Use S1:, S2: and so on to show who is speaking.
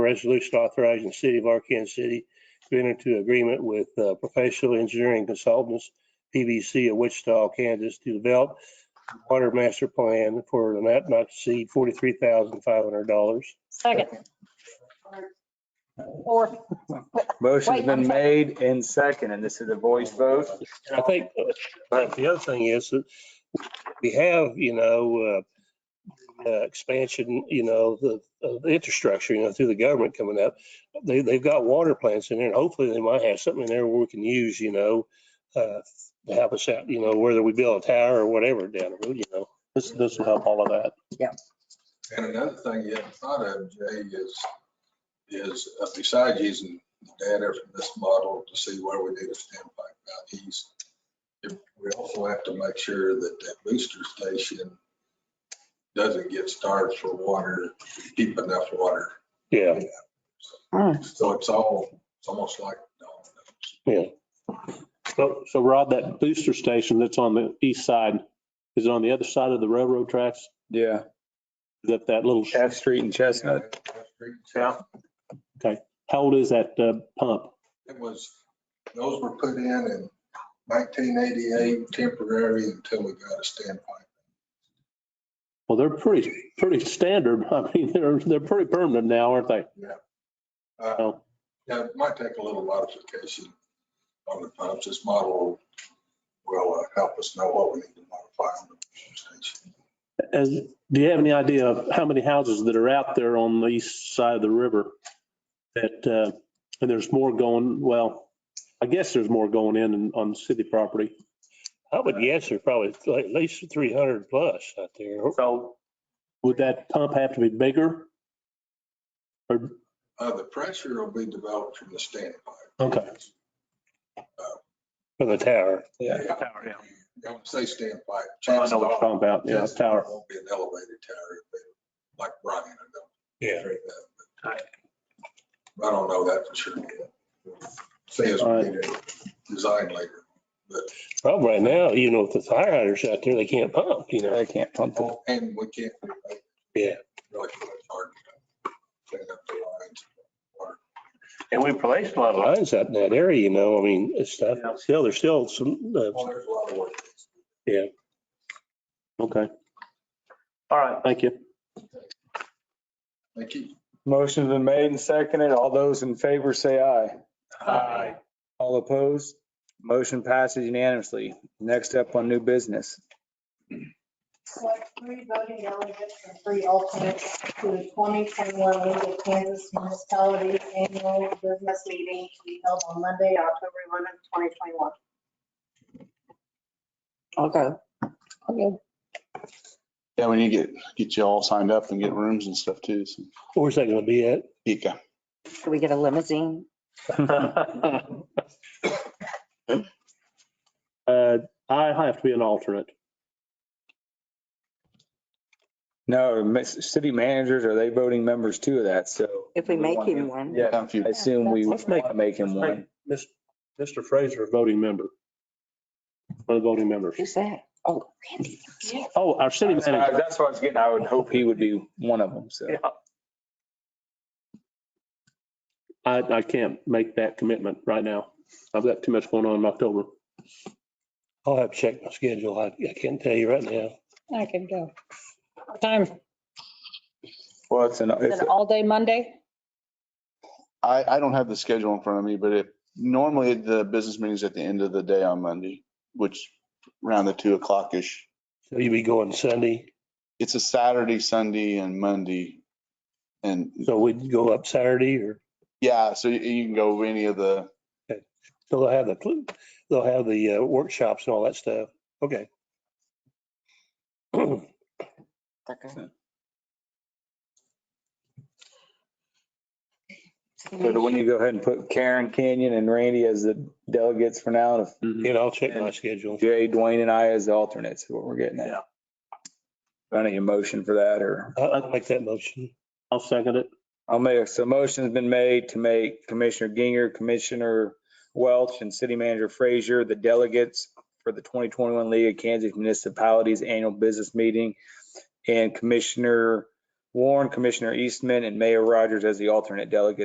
S1: Resolution authorizing the city of Arkansas City to enter into agreement with uh, Professional Engineering Consultants, PVC of Wichita, Kansas, to develop water master plan for an amount not to exceed forty-three thousand five hundred dollars.
S2: Second. Or,
S3: Motion's
S2: Wait, I'm
S3: been
S2: sorry.
S3: made and second, and this is a voice vote.
S1: And I think, uh, the other thing is that we have, you know, uh, uh, expansion, you know, the, of the infrastructure, you know, through the government coming up. They, they've got water plants in there and hopefully they might have something in there where we can use, you know, uh, to help us out, you know, whether we build a tower or whatever down the road, you know, this, this will help all of that.
S4: And another thing you hadn't thought of, Jay, is, is uh, besides using the data from this model to see where we need a standpipe out east, if- we also have to make sure that that booster station doesn't get starved for water, deep enough water.
S1: Yeah,
S4: So it's all, it's almost like dominoes.
S1: yeah.
S5: So, so Rod, that booster station that's on the east side, is it on the other side of the railroad tracks?
S3: Yeah.
S5: That, that little,
S3: F Street and Chestnut.
S4: Yeah.
S5: how old is that uh, pump?
S4: It was, those were put in in 1988 temporary until we got a standpipe.
S5: Well, they're pretty, pretty standard. I mean, they're, they're pretty permanent now, aren't they?
S4: Uh,
S5: Oh.
S4: Yeah, it might take a little modification on the pumps. This model will uh, help us know what we need to modify on the pump station.
S5: As, do you have any idea of how many houses that are out there on the east side of the river? That, uh, and there's more going, well, I guess there's more going in and- on city property.
S1: I would guess there's probably at least three hundred plus out there.
S5: So would that pump have to be bigger? Or,
S4: Uh, The pressure will be developed from the standpipe.
S5: okay.
S1: From the tower.
S3: Yeah.
S5: Tower, yeah.
S4: I would say standpipe.
S5: I know what you're talking about. Yeah,
S4: Chances are
S5: tower.
S4: it Won't be an elevated tower, it'll be like Brian. I don't
S1: Yeah.
S4: think that, but I don't know that for sure. Say as we
S5: Alright.
S4: need it designed later.
S1: Problem right now, you know, with the fire hydrants out there, they can't pump, you know.
S3: I can't pump it.
S4: And we can't. do that.
S1: Yeah.
S4: Really, it's hard to clean up the lines.
S6: And we placed a lot of,
S1: lines out in that area, you know, I mean, it's not, still, there's still some, uh,
S4: Well, there's a lot of work.
S5: Okay,
S6: all right,
S5: thank you.
S4: Thank you.
S3: Motion's been made and seconded. All those in favor say aye.
S6: Aye.
S3: All opposed? Motion passes unanimously. Next up on new business.
S2: select three voting delegates and three alternates to the 2021 League of Kansas Municipalities Annual Business Meeting to be held on Monday, October 11th, 2021.
S7: Okay. Okay.
S8: Yeah, we need to get, get you all signed up and get rooms and stuff too. So,
S1: where's that gonna be at?
S8: Pika.
S7: Should we get a limousine?
S5: Uh, I have to be an alternate.
S3: No, miss- city managers, are they voting members too of that? So.
S7: If we make him one.
S3: Yeah,
S8: If you-
S3: I assume we
S5: Let's make-
S3: wanna make him one.
S5: Mis- Mr. Fraser, voting member. One of the voting members.
S7: Who's that? Oh, Randy.
S5: Oh, our city manager.
S3: That's what I was getting. I would hope he would be one of them. So.
S5: I, I can't make that commitment right now. I've got too much going on in October.
S1: I'll have to check my schedule. I, I can't tell you right now.
S9: I can go. What Time, is
S3: Well, it's an, it's
S9: it all day Monday?
S8: I, I don't have the schedule in front of me, but it, normally the business meeting's at the end of the day on Monday, which around the two o'clock-ish.
S1: So you'll be going Sunday,
S8: It's a Saturday, Sunday and Monday. And
S1: so we'd go up Saturday or,
S8: yeah, so you- you can go any of the,
S1: so they'll have the, cl- they'll have the uh, workshops and all that stuff. Okay.
S7: Okay.
S3: So do we need to go ahead and put Karen Canyon and Randy as the delegates for now, and
S1: And I'll check my schedule.
S3: Jay, Dwayne and I as the alternates, is what we're getting at. Do I need a motion for that, or,
S1: I- I'll make that motion.
S5: I'll second it.
S3: I'll make, so motion's been made to make Commissioner Ginger, Commissioner Welch, and City Manager Frazier the delegates for the 2021 League of Kansas Municipalities Annual Business Meeting, and Commissioner Warren, Commissioner Eastman, and Mayor Rogers as the alternate delegates